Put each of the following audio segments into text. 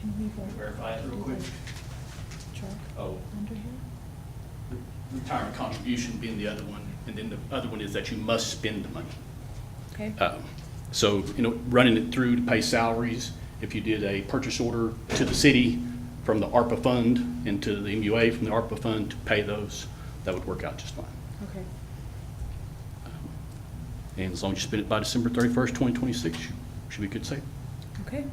Can we vote verify it real quick. truck Oh, under here? retirement contribution being the other one, and then the other one is that you must spend the money. Okay, Um, So, you know, running it through to pay salaries, if you did a purchase order to the city from the ARPA fund and to the MUA from the ARPA fund to pay those, that would work out just fine. okay. And as long as you spend it by December thirty-first, twenty twenty-six, should be good safe. Okay,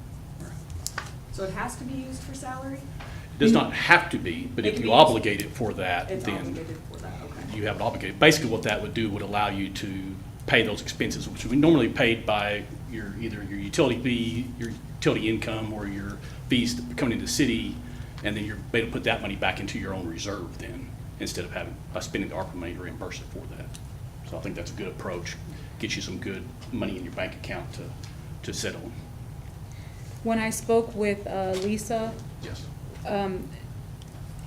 So it has to be used for salary? It does not have to be, but It if can you be used. obligate it for that, It's then obligated for that, okay. you have it obligated. Basically, what that would do would allow you to pay those expenses, which would be normally paid by your, either your utility fee, your utility income, or your fees coming into the city, and then you're able to put that money back into your own reserve then, instead of having, uh, spending the ARPA money to reimburse it for that. So I think that's a good approach, gets you some good money in your bank account to, to settle. when I spoke with uh, Lisa, Yes. um,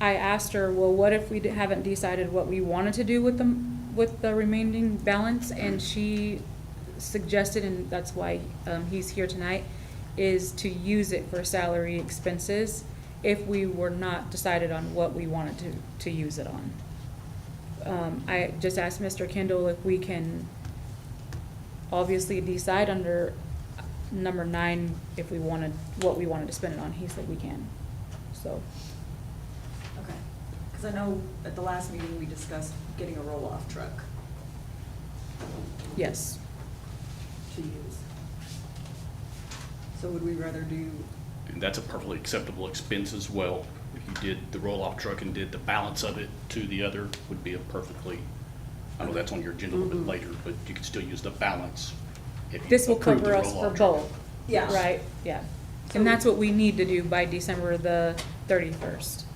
I asked her, well, what if we d- haven't decided what we wanted to do with the, with the remaining balance? And she suggested, and that's why um, he's here tonight, is to use it for salary expenses if we were not decided on what we wanted to, to use it on. Um, I just asked Mr. Kendall if we can obviously decide under number nine if we wanted, what we wanted to spend it on. He said we can, so. Okay. Because I know at the last meeting, we discussed getting a roll-off truck Yes. to use. So would we rather do, And that's a perfectly acceptable expense as well. If you did the roll-off truck and did the balance of it to the other, would be a perfectly, I know that's on your agenda a little bit later, but you could still use the balance if you Mm-hmm. This will approve the cover us for roll-off truck. both, yeah. right? Yeah. And that's what we need to do by December the thirty-first.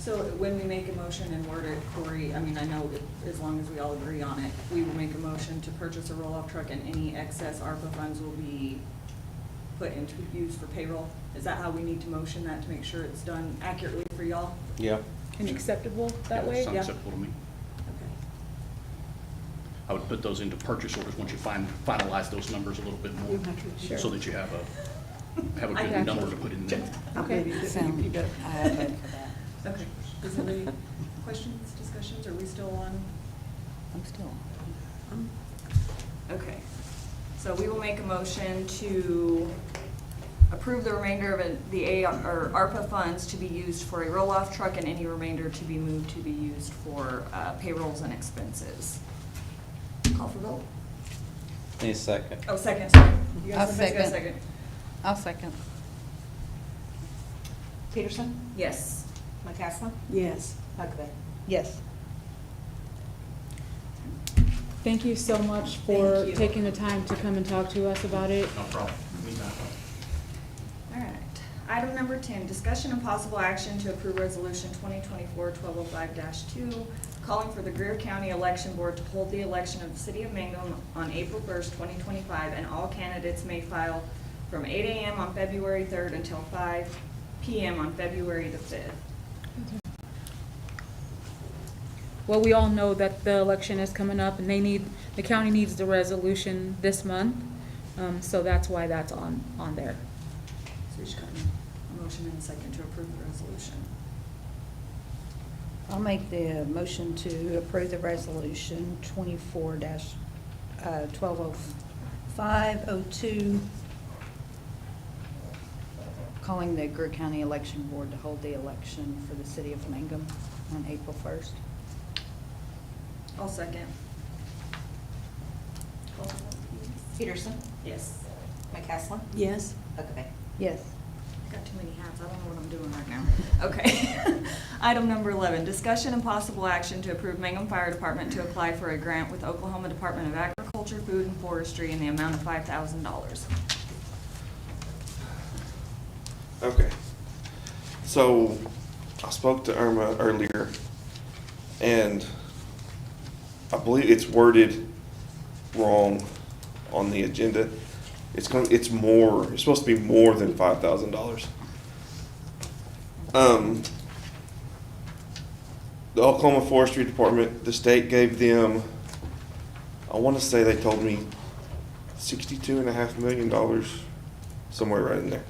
So when we make a motion and word it, Corey, I mean, I know it- as long as we all agree on it, we will make a motion to purchase a roll-off truck and any excess ARPA funds will be put into use for payroll. Is that how we need to motion that to make sure it's done accurately for y'all? Yeah, And acceptable that Yeah, way? Sounds yeah. acceptable to me. Okay. I would put those into purchase orders once you fin- finalize those numbers a little bit more, Sure. so that you have a, have a I good got number you. to put in there. Okay. Sound. I vote for that. Okay, is there any questions, discussions, are we still on? Um, I'm still on. Okay, so we will make a motion to approve the remainder of it- the A, or ARPA funds to be used for a roll-off truck and any remainder to be moved to be used for uh, payrolls and expenses. Call for vote? need a second. Oh, second, sorry. You I'll guys somebody's got a second. I'll second. Peterson? Yes. McCaslin? Yes. Huckabee. Yes. Thank you so much for Thank you. taking the time to come and talk to us about it. No problem. All right. Item number ten, discussion and possible action to approve resolution 2024-1205 two, calling for the Greer County Election Board to hold the election of the city of Mangum on April first, twenty twenty-five, and all candidates may file from eight AM on February third until five PM on February the fifth. Well, we all know that the election is coming up and they need, the county needs the resolution this month. Um, so that's why that's on, on there. So we should got a motion and a second to approve the resolution. I'll make the motion to approve the resolution twenty-four dash, uh, twelve oh five oh two, calling the Greer County Election Board to hold the election for the city of Mangum on April first. I'll second. Call for vote, please. Peterson? Yes. McCaslin? Yes. Huckabee. Yes. I got too many hats, I don't know what I'm doing right now. Okay. Item number 11, discussion and possible action to approve Mangum Fire Department to apply for a grant with Oklahoma Department of Agriculture, Food and Forestry in the amount of $5,000. Okay. So I spoke to Irma earlier and I believe it's worded wrong on the agenda. It's going, it's more, it's supposed to be more than five thousand dollars. Um, the Oklahoma Forestry Department, the state gave them, I want to say they told me sixty-two and a half million dollars, somewhere right in there.